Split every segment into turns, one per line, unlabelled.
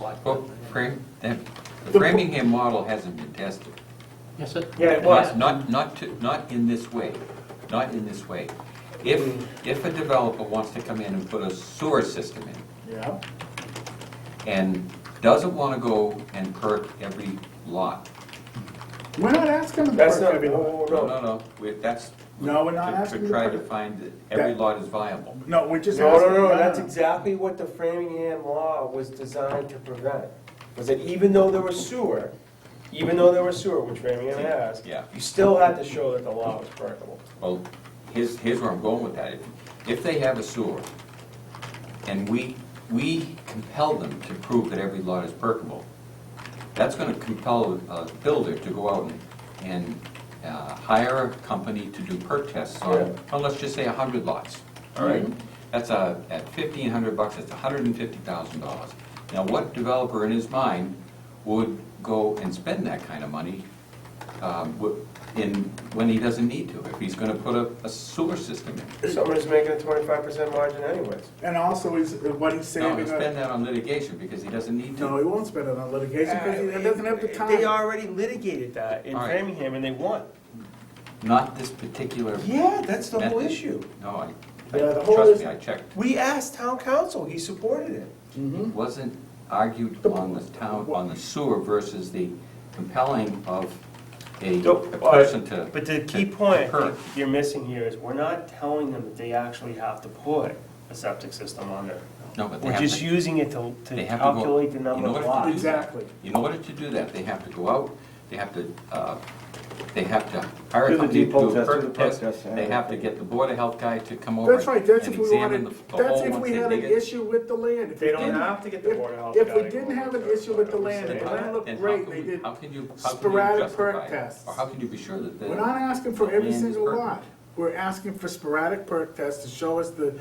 like that.
Well, Fram, that, the Framingham model hasn't been tested.
Yes, it,
Yeah, it was.
Not, not to, not in this way, not in this way. If, if a developer wants to come in and put a sewer system in,
Yeah.
and doesn't want to go and perk every lot.
We're not asking them.
That's
for
not,
every lot.
oh,
No,
no,
no, no, we- that's.
No, we're not
to-
asking
To
you
try
for
to
it.
find that every
That-
lot is viable.
No, we're just
no,
asking.
no, no, that's exactly what the Framingham law was designed to prevent. Was that even though there was sewer, even though there was sewer, which Framingham has,
Yeah.
you still had to show that the law was practicable.
Well, Oh, here's, here's where I'm going with that. If- If they have a sewer, and we, we compel them to prove that every lot is perkable, that's gonna compel a builder to go out and, and uh, hire a company to do perk tests on,
Yeah.
on, let's just say a hundred lots, all right?
Mm-hmm.
That's a, at fifteen hundred bucks, that's hundred and fifty thousand dollars. Now, what developer in his mind would go and spend that kind of money um, w- in, when he doesn't need to, if he's gonna put a a sewer system in.
Somebody's making a twenty-five percent margin anyways.
And also, is what he's
No,
saving.
he'll spend
on-
that on litigation because he doesn't need to.
No, he won't spend it on litigation because he
Uh,
doesn't have the time.
They already litigated that in
All right.
Framingham and they won.
Not this particular.
Yeah, that's the whole
method.
issue.
No, I, I-
Yeah, the whole
trust
is-
me, I checked.
We asked town council, he supported it.
Mm-hmm.
It Wasn't argued on the town, on the sewer versus the compelling of a
No,
a person to.
But the key
to- to
point
perk.
you're missing here is we're not telling them that they actually have to put a septic system on there.
No, but they
We're
have
just
to,
using it to,
They
to
have to go-
calculate the
in
number of
order to do
lots.
that-
Exactly.
in order to do that, they have to go out, they have to, uh, they have to hire
Do
a
the
company to
depot
do a
test, do the
perk
perk
test.
test, yeah.
They have to get the board of health guy to come over.
That's right, that's
and
if we
examine
wanted,
the- the
that's
hole
if
once
we
they
had an
dig it.
issue with the land. If
They
we
don't
didn't-
have to get the
if-
Board of Health
If
guy
we
to
didn't
come
have an
over.
issue with the land,
Then
the
how-
land
then
looked
how
great,
can
they
we-
did.
How can you, how can you
sporadic perk
justify it?
tests.
Or how can you be sure that the?
We're not asking for every
land is
single
perkable?
lot. We're asking for sporadic perk tests to show us the,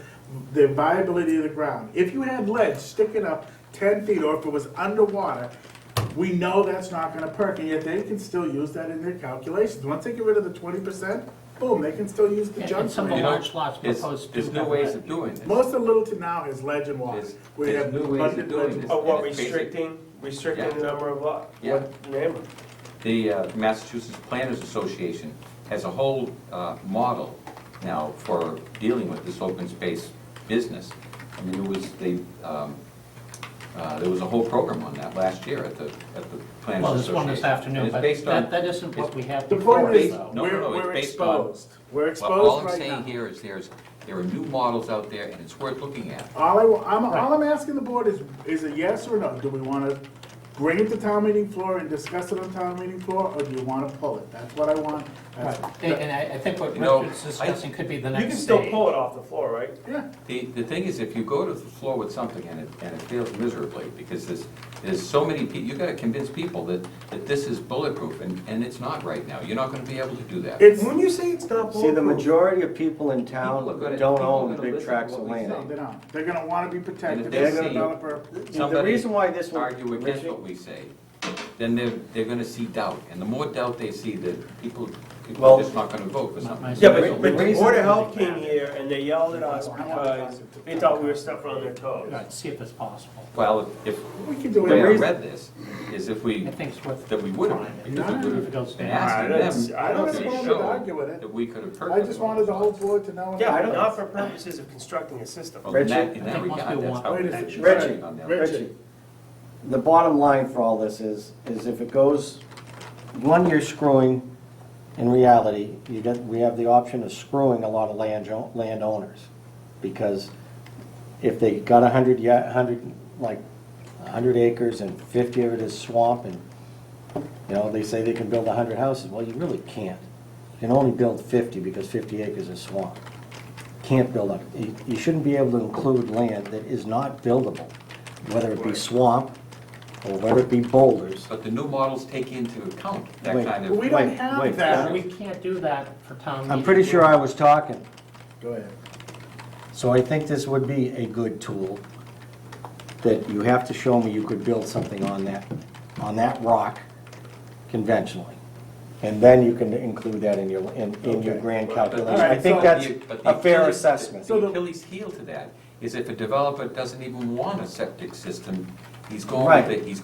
the viability of the ground. If you had ledge sticking up ten feet or if it was underwater, we know that's not gonna perk, and yet they can still use that in their calculations. Once they get rid of the twenty percent, boom, they can still use the
And-
junk.
and some
land.
of
You know,
large lots
there's-
proposed
There's
to
new
have
ways
that.
of doing this.
Most of Littleton now is ledge and water.
There's-
We
there's
have
new ways of
abundant
doing
ledge.
this.
Oh, what,
And it's basic.
restricting, restricting the
Yeah.
number of lots?
Yeah.
What number?
The uh, Massachusetts Planners Association has a whole uh, model now for dealing with this open space business. I mean, it was, they, um, uh, there was a whole program on that last year at the, at the Planners Association.
well, there's one this
And
afternoon,
it's
but
based on-
that, that isn't what we have
The point
before us,
is,
based-
though.
no,
we're,
no, it's
we're
based on-
exposed. We're
Well, all
exposed
I'm saying
right now.
here is there's, there are new models out there and it's worth looking at.
All I, wa- I'm, all I'm asking the board is, is a yes or no? Do we wanna bring it to town meeting floor and discuss it on town meeting floor, or do you wanna pull it? That's what I want. That's-
Right. And and I, I think what
You know,
Richard's
I-
discussing could be the
You
next
can
stage.
still pull it off the floor, right?
Yeah,
The, the thing is, if you go to the floor with something and it, and it fails miserably, because there's, there's so many people, you gotta convince people that, that this is bulletproof, and, and it's not right now, you're not gonna be able to do that.
it's,
When you say it's not
See, the
bulletproof,
majority of people in
People are
town
gonna- people
don't
are
own
gonna
big
listen
tracts
to
of
what we
no,
land.
they don't. They're gonna wanna be
And
protected,
if
they're
they
gonna
see-
develop a.
The
Somebody
reason why this was.
argue against
Richie,
what we say, then they're, they're gonna see doubt, and the more doubt they see, that people, people
Well-
are just not gonna vote for
My- my-
something.
yeah,
The
but, but the
reason-
Board of Health came here and they yelled at us because they thought we were stepping on their toes.
Let's See if it's possible.
Well, if,
We can
the
do
way I
it.
read this, is if we,
I think it's worth.
that we would
trying
have,
it.
because we would
If it goes
have been
down.
I
asking
don't-
them,
I don't
to
wanted to
show
argue with it.
that we could have perked.
I just wanted the whole board to know.
Yeah, but not for purposes of constructing a system.
Well, in that, in
I
that
think once we
regard, that's
want-
how.
Wait a
that's
second.
right
Richie,
on that.
Richie, the bottom line for all this is, is if it goes, one, you're screwing, in reality, you get, we have the option of screwing a lot of land, landowners. Because if they got a hundred, yeah, hundred, like, a hundred acres and fifty of it is swamp and, you know, they say they can build a hundred houses, well, you really can't. You can only build fifty because fifty acres is swamp can't build up. You you shouldn't be able to include land that is not buildable, whether it be swamp or whether it be boulders.
But the new models take into account that
Wait.
kind of.
We don't
Wait,
have
wait.
that.
We can't do that for town meeting.
I'm pretty sure I was talking,
Go ahead.
so I think this would be a good tool, that you have to show me you could build something on that, on that rock conventionally. And then you can include that in your, in in your
Okay.
grand
But the-
calculation. I think
so-
that's
but the
a fair
Achilles-
assessment.
The Achilles heel to that is if a developer doesn't even want a septic system He's going
Right.
with it, he's